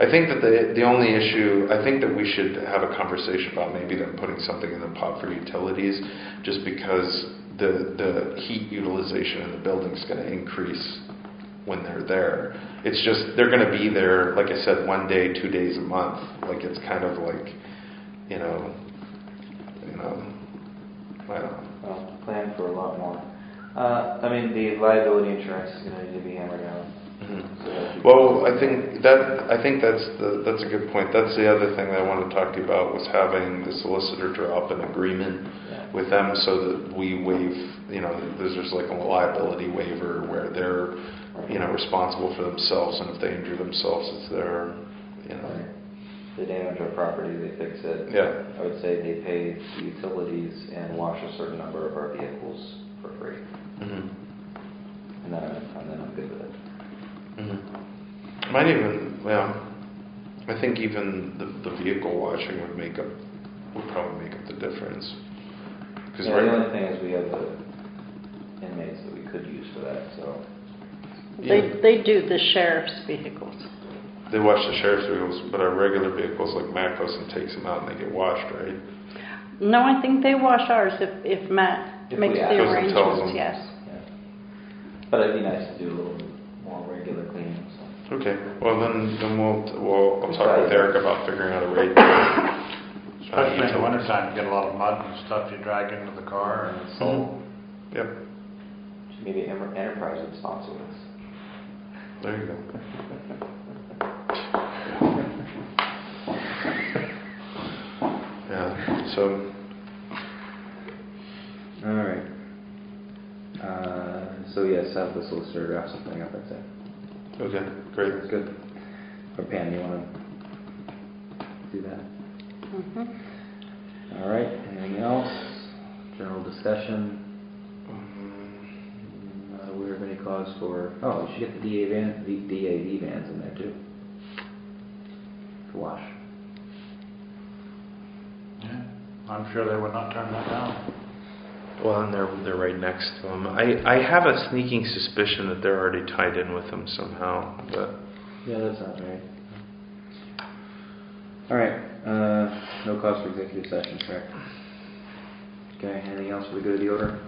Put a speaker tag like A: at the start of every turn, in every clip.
A: I think that the, the only issue, I think that we should have a conversation about maybe them putting something in the pot for utilities, just because the, the heat utilization in the building's gonna increase when they're there. It's just, they're gonna be there, like I said, one day, two days a month, like, it's kind of like, you know, you know, I don't know.
B: Well, plan for a lot more. Uh, I mean, the liability insurance is gonna need to be hammered out. so that'd be-
A: Well, I think that, I think that's the, that's a good point. That's the other thing that I wanted to talk to you about, was having the solicitor draw up an agreement
B: Yeah.
A: with them so that we waive, you know, there's just like a liability waiver where they're, you know, responsible for themselves, and if they injure themselves, it's their, you know,
B: The damage or property, they fix it.
A: yeah.
B: I would say they pay the utilities and wash a certain number of our vehicles for free.
A: Mhm.
B: And then, I'm- and then I'm good with it.
A: Mhm. Might even, yeah, I think even the, the vehicle washing would make up, would probably make up the difference. 'Cause
B: Yeah,
A: right-
B: the only thing is we have the inmates that we could use for that, so.
A: Yeah.
C: They, they do the sheriff's vehicles.
A: They wash the sheriff's vehicles, but our regular vehicles like Matt goes and takes them out and they get washed, right?
C: No, I think they wash ours if, if Matt
B: If we
C: makes
B: ask.
C: the
A: Goes and tells
C: arrangements,
A: them.
C: yes.
B: yeah. But it'd be nice to do a little more regular cleaning, so.
A: Okay, well then, then we'll, we'll, I'll talk with
B: Decide.
A: Eric about figuring out a rate.
D: Especially in the wintertime, you get a lot of mud and stuff you drag into the car and it's
B: Oh,
D: all
A: Yep,
B: Maybe Emer- Enterprise would sponsor us.
A: there you go. Yeah, so,
B: All right. Uh, so yes, have the solicitor draft something up, that's it.
A: okay, great.
B: That's good. Or Pam, you wanna do that?
C: Mhm.
B: All right, anything else? General discussion, Mm, not aware of any cause for, oh, we should get the DA van, the DAV vans in there too. To wash.
D: Yeah, I'm sure they would not turn that down.
A: Well, and they're, they're right next to them. I, I have a sneaking suspicion that they're already tied in with them somehow, but.
B: Yeah, that's not right. All right, uh, no cause for executive session, correct? Okay, anything else for the good of the order?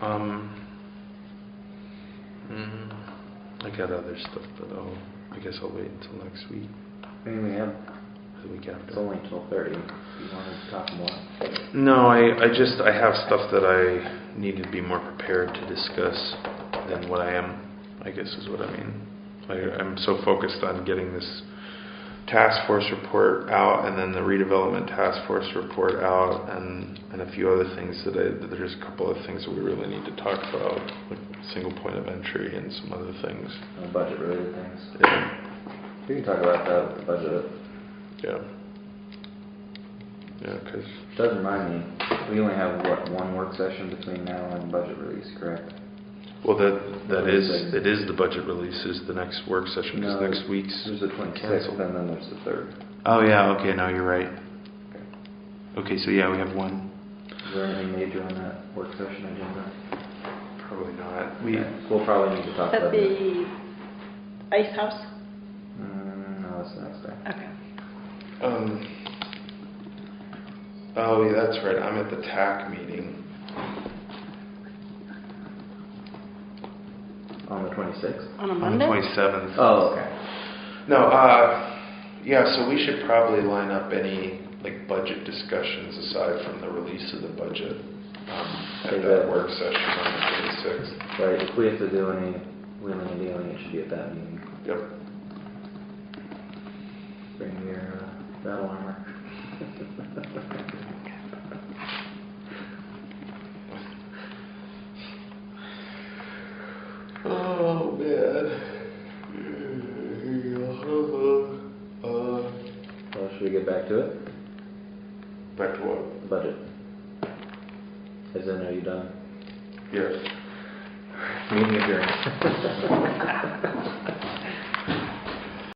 A: Um. mm, I got other stuff, but I'll, I guess I'll wait until next week,
B: I mean, we have,
A: the week
B: it's
A: after.
B: only twelve thirty, you wanna talk more?
A: No, I, I just, I have stuff that I need to be more prepared to discuss than what I am, I guess is what I mean. I, I'm so focused on getting this task force report out and then the redevelopment task force report out and, and a few other things that I, that there's a couple of things that we really need to talk about, like single point of entry and some other things.
B: Uh, Budget related things.
A: Yeah,
B: We can talk about that with the budget.
A: yeah. Yeah, 'cause,
B: Doesn't remind me, we only have, what, one work session between now and budget release, correct?
A: well, that, that is, it is the budget release is the next work session, because
B: No,
A: next week's.
B: There's the twenty-sixth,
A: Cancel.
B: and then there's the third.
A: Oh, yeah, okay, no, you're right. Okay, so yeah, we have one.
B: Is there anything major on that work session agenda?
A: Probably not. We,
B: Okay, We'll probably need to talk
C: At
B: about it.
C: the ice house?
B: Mm, no, that's the next day.
C: Okay.
A: um, oh, yeah, that's right, I'm at the TAC meeting.
B: On the twenty-sixth?
A: On
C: On a
A: the
C: Monday?
A: twenty-seventh.
B: Oh, okay.
A: No, uh, yeah, so we should probably line up any, like, budget discussions aside from the release of the budget, um, at
B: Is
A: that
B: that-
A: work session on the twenty-sixth.
B: Right, if we have to do any wheeling and dealing, it should be at that meeting.
A: Yep.
B: Bring your uh, battle armor.
A: Oh, man. Uh,
B: Well, should we get back to it?
A: Back to what?
B: Budget. As in, are you done?
A: Yes.
B: Meeting adjourned.